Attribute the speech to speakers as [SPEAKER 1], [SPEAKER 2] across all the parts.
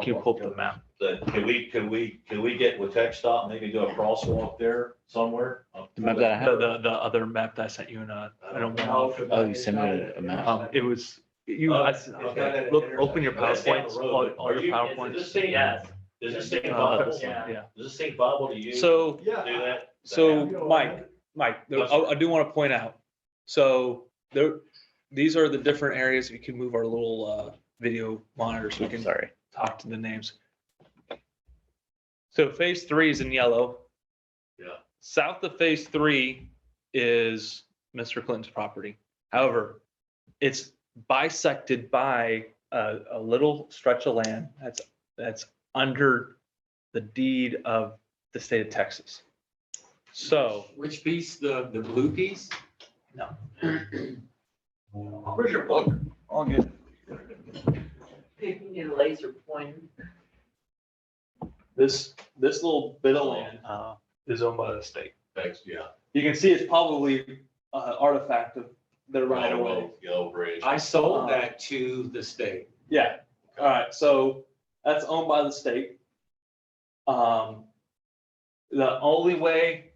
[SPEAKER 1] Can you pull up the map?
[SPEAKER 2] The, can we, can we, can we get with Tech Stop, maybe do a crosswalk there somewhere?
[SPEAKER 3] The map that I
[SPEAKER 1] The,
[SPEAKER 3] have,
[SPEAKER 1] the, the other map that I sent you and, uh, I don't know. if-
[SPEAKER 3] oh, you sent me a map.
[SPEAKER 1] Um, it was, you, I, okay, look, open your PowerPoints, all, all your
[SPEAKER 2] Does this
[SPEAKER 1] PowerPoints.
[SPEAKER 2] thing,
[SPEAKER 4] Yes.
[SPEAKER 2] does this thing
[SPEAKER 1] Uh,
[SPEAKER 2] bubble?
[SPEAKER 1] this one,
[SPEAKER 2] Does
[SPEAKER 1] Yeah,
[SPEAKER 2] this thing bubble to you? Do
[SPEAKER 3] So,
[SPEAKER 5] Yeah.
[SPEAKER 2] that?
[SPEAKER 3] so Mike, Mike, there- I, I do want to point out, so there, these are the different areas, we can move our little, uh, video monitors, we can
[SPEAKER 1] sorry.
[SPEAKER 3] talk to the names. So phase three is in yellow.
[SPEAKER 2] Yeah.
[SPEAKER 3] South of phase three is Mr. Clinton's property. However, it's bisected by a, a little stretch of land that's, that's under the deed of the state of Texas. So
[SPEAKER 4] Which piece, the, the blue piece?
[SPEAKER 3] No.
[SPEAKER 4] Where's your book?
[SPEAKER 5] All good.
[SPEAKER 6] If you need a laser pointer.
[SPEAKER 3] this, this little bit of land
[SPEAKER 1] Uh,
[SPEAKER 3] is owned by the state.
[SPEAKER 2] Thanks, yeah.
[SPEAKER 3] You can see it's probably an artifact of their right
[SPEAKER 2] Oh,
[SPEAKER 3] of way.
[SPEAKER 2] Yellow Bridge.
[SPEAKER 4] I sold that to the state.
[SPEAKER 3] Yeah, all right, so that's owned by the state. Um, the only way,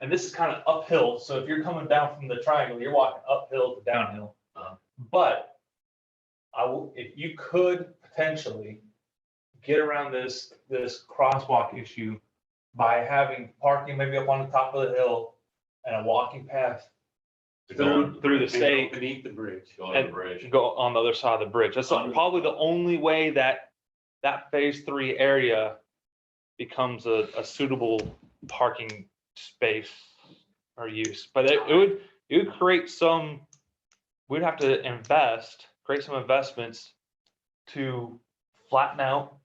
[SPEAKER 3] and this is kind of uphill, so if you're coming down from the triangle, you're walking uphill to downhill. Um,
[SPEAKER 2] Uh-huh.
[SPEAKER 3] But I will, if you could potentially get around this, this crosswalk issue by having parking maybe up on the top of the hill and a walking path
[SPEAKER 2] To go on-
[SPEAKER 3] through, through the state
[SPEAKER 4] Beneath the bridge.
[SPEAKER 2] Go on the bridge.
[SPEAKER 3] should go on the other side of the bridge. That's
[SPEAKER 2] Under-
[SPEAKER 3] probably the only way that that phase three area becomes a, a suitable parking space or use. But it, it would, it would create some, we'd have to invest, create some investments to flatten out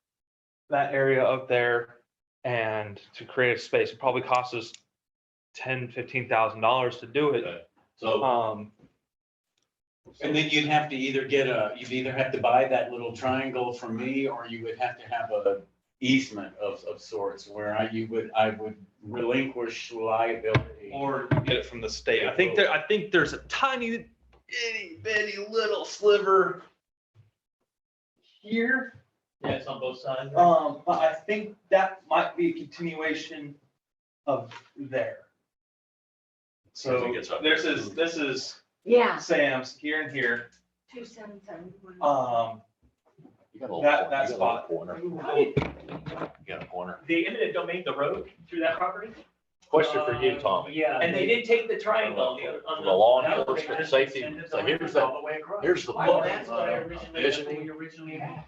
[SPEAKER 3] that area up there and to create a space. It probably costs us ten, fifteen thousand dollars to do it.
[SPEAKER 2] So,
[SPEAKER 3] Um,
[SPEAKER 4] And then you'd have to either get a, you'd either have to buy that little triangle from me, or you would have to have a easement of, of sorts, where I, you would, I would relinquish liability.
[SPEAKER 3] or you get it from the state. I think there, I think there's a tiny, itty bitty little sliver here.
[SPEAKER 1] yeah, it's on both sides. right?
[SPEAKER 3] Um, but I think that might be a continuation of there.
[SPEAKER 2] As
[SPEAKER 3] So
[SPEAKER 2] it gets up.
[SPEAKER 3] this is, this is
[SPEAKER 6] Yeah.
[SPEAKER 3] Sam's here and here.
[SPEAKER 6] Two seven seven one.
[SPEAKER 3] Um,
[SPEAKER 2] You got a little
[SPEAKER 3] That-
[SPEAKER 2] cor-
[SPEAKER 3] that
[SPEAKER 2] you got a little
[SPEAKER 3] spot.
[SPEAKER 2] Corner, you got a corner.
[SPEAKER 1] The eminent domain, the road through that property?
[SPEAKER 2] Question for you, Tommy.
[SPEAKER 1] Yeah, and they did take the triangle on the,
[SPEAKER 2] For
[SPEAKER 1] on
[SPEAKER 2] the
[SPEAKER 1] the.
[SPEAKER 2] law
[SPEAKER 1] that was
[SPEAKER 2] enforcement
[SPEAKER 1] the-
[SPEAKER 2] safety,
[SPEAKER 1] and the
[SPEAKER 2] so here's uh,
[SPEAKER 1] line
[SPEAKER 2] the-
[SPEAKER 1] All the way across.
[SPEAKER 2] Here's the.
[SPEAKER 6] Well, that's what I
[SPEAKER 2] Vision.
[SPEAKER 6] originally, we originally had.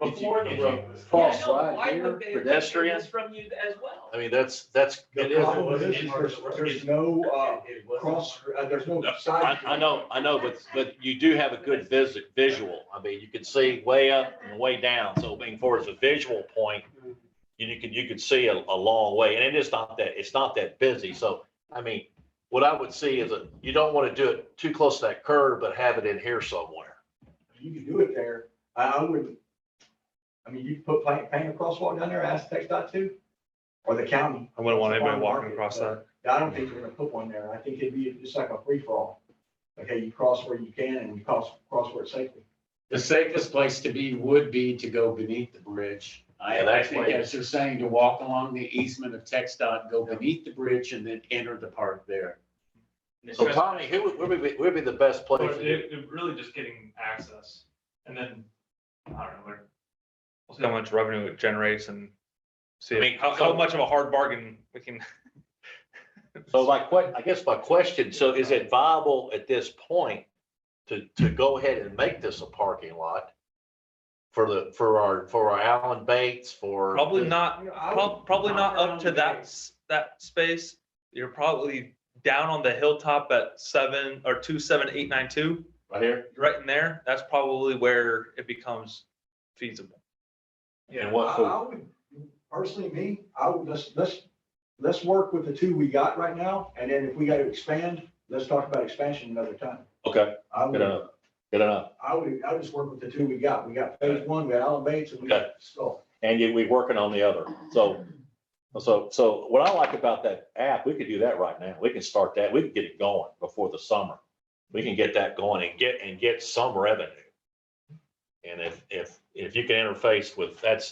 [SPEAKER 2] Did you-
[SPEAKER 1] Before the
[SPEAKER 2] did you-
[SPEAKER 1] road.
[SPEAKER 5] False
[SPEAKER 1] Yeah, no,
[SPEAKER 5] light
[SPEAKER 1] why
[SPEAKER 5] here,
[SPEAKER 1] would they have taken
[SPEAKER 2] pedestrian.
[SPEAKER 1] this From you as well.
[SPEAKER 2] I mean, that's, that's. it
[SPEAKER 5] The
[SPEAKER 2] is-
[SPEAKER 5] problem is, is there's, there's no, uh,
[SPEAKER 2] It wasn't-
[SPEAKER 5] cross, uh, there's no
[SPEAKER 2] No,
[SPEAKER 5] side.
[SPEAKER 2] I, I know, I know, but, but you do have a good visit, visual. I mean, you can see way up and way down. So being far as a visual point, and you can, you can see a, a long way. And it is not that, it's not that busy. So, I mean, what I would see is that you don't want to do it too close to that curve, but have it in here somewhere.
[SPEAKER 5] You could do it there. I, I wouldn't. I mean, you could put paint, paint a crosswalk down there, ask Tech dot two, or the county.
[SPEAKER 3] I wouldn't want anybody
[SPEAKER 5] Farm
[SPEAKER 3] walking
[SPEAKER 5] market,
[SPEAKER 3] across
[SPEAKER 5] but
[SPEAKER 3] that.
[SPEAKER 5] I don't think they're gonna put one there. I think it'd be just like a free for all. Okay, you cross where you can and you cross, cross where it's safely.
[SPEAKER 4] The safest place to be would be to go beneath the bridge. I,
[SPEAKER 2] Yeah,
[SPEAKER 4] I
[SPEAKER 2] that's
[SPEAKER 4] think
[SPEAKER 2] where-
[SPEAKER 4] as you're saying, to walk along the easement of Tech dot, go beneath the bridge and then enter the park there.
[SPEAKER 2] So Tommy, who would, where would be, where would be the best place?
[SPEAKER 3] But
[SPEAKER 2] to do it?
[SPEAKER 3] it, it really just getting access and then, I don't know, where. We'll see how much revenue it generates and see
[SPEAKER 2] I mean,
[SPEAKER 3] how, how much of a hard bargain we can.
[SPEAKER 2] So my que, I guess my question, so is it viable at this point to, to go ahead and make this a parking lot? For the, for our, for our Allen Bates, for.
[SPEAKER 3] Probably not
[SPEAKER 5] I mean, I would-
[SPEAKER 3] Prob- Probably not
[SPEAKER 5] Not
[SPEAKER 3] up to
[SPEAKER 5] around
[SPEAKER 3] that,
[SPEAKER 5] there.
[SPEAKER 3] s- that space. You're probably down on the hilltop at seven or two, seven, eight, nine, two,
[SPEAKER 2] Right here?
[SPEAKER 3] right in there. That's probably where it becomes feasible.
[SPEAKER 2] And
[SPEAKER 5] I,
[SPEAKER 2] what, for-
[SPEAKER 5] I would, personally, me, I would, let's, let's, let's work with the two we got right now, and then if we gotta expand, let's talk about expansion another time.
[SPEAKER 2] okay,
[SPEAKER 5] I
[SPEAKER 2] good
[SPEAKER 5] would,
[SPEAKER 2] enough, good enough.
[SPEAKER 5] I would, I would just work with the two we got. We got phase one, we got Allen Bates, and we got Skull.
[SPEAKER 2] And yet we're working on the other, so. So, so what I like about that app, we could do that right now, we can start that, we can get it going before the summer. We can get that going and get, and get some revenue. And if, if, if you can interface with, that's,